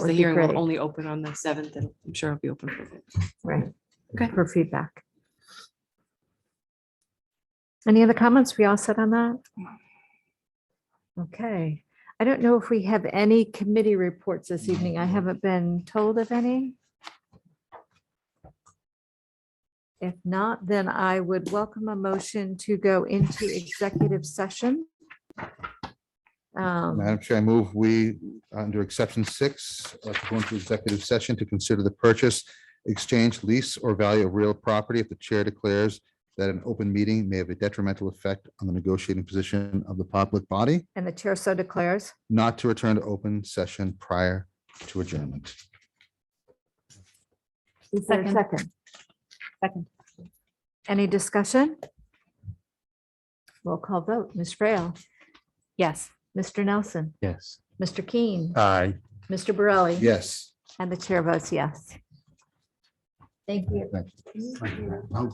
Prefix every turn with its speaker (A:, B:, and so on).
A: So
B: Would
A: the
B: be
A: hearing
B: great.
A: will only open on the seventh and I'm sure it'll be open for.
B: Right.
A: Okay.
B: For feedback. Any other comments? We all set on that? Okay. I don't know if we have any committee reports this evening. I haven't been told of any. If not, then I would welcome a motion to go into executive session. Um,
C: Madam Chair, I move we, under exception six, uh, to go into executive session to consider the purchase, exchange, lease, or value of real property if the chair declares that an open meeting may have a detrimental effect on the negotiating position of the public body,
B: And the chair so declares.
C: not to return to open session prior to adjournment.
B: Is there a
D: Second.
B: second?
D: Second.
B: Any discussion? Roll call vote. Ms. Frail,
D: Yes.
B: Mr. Nelson,
C: Yes.
B: Mr. Keen,
C: Aye.
B: Mr. Borelli.
C: Yes.
B: And the chair votes yes. Thank you.
C: Thank you.